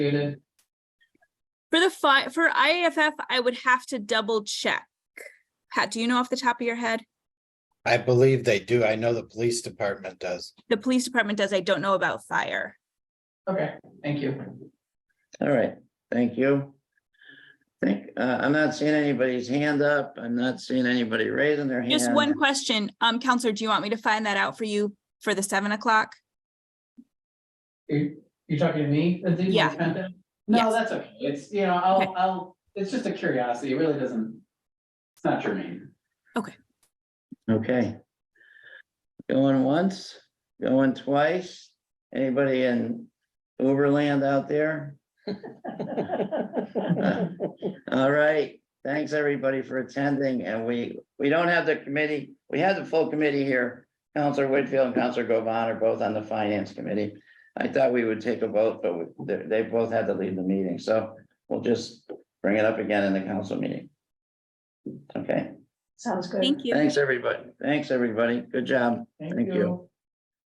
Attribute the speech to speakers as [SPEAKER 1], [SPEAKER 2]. [SPEAKER 1] Shannon?
[SPEAKER 2] For the fi, for IAFF, I would have to double check. Pat, do you know off the top of your head?
[SPEAKER 3] I believe they do. I know the police department does.
[SPEAKER 2] The police department does, I don't know about fire.
[SPEAKER 1] Okay, thank you.
[SPEAKER 4] All right, thank you. Think, uh, I'm not seeing anybody's hand up. I'm not seeing anybody raising their hand.
[SPEAKER 2] Just one question, um, Counselor, do you want me to find that out for you for the seven o'clock?
[SPEAKER 1] You, you talking to me? Lindsay, when
[SPEAKER 2] Yeah.
[SPEAKER 1] it's spent then? No,
[SPEAKER 2] Yes.
[SPEAKER 1] that's okay. It's, you know,
[SPEAKER 2] Okay.
[SPEAKER 1] I'll, I'll, it's just a curiosity. It really doesn't. It's not germane.
[SPEAKER 4] Okay. Going once, going twice. Anybody in Uberland out there? All right, thanks everybody for attending and we, we don't have the committee, we have the full committee here. Counselor Whitfield and Counselor Govan are both on the finance committee. I thought we would take a vote, but we- they, they both had to leave the meeting, so we'll just bring it up again in the council meeting. Okay,
[SPEAKER 5] Sounds good.
[SPEAKER 2] Thank you.
[SPEAKER 4] thanks everybody, thanks everybody, good job. Thank you.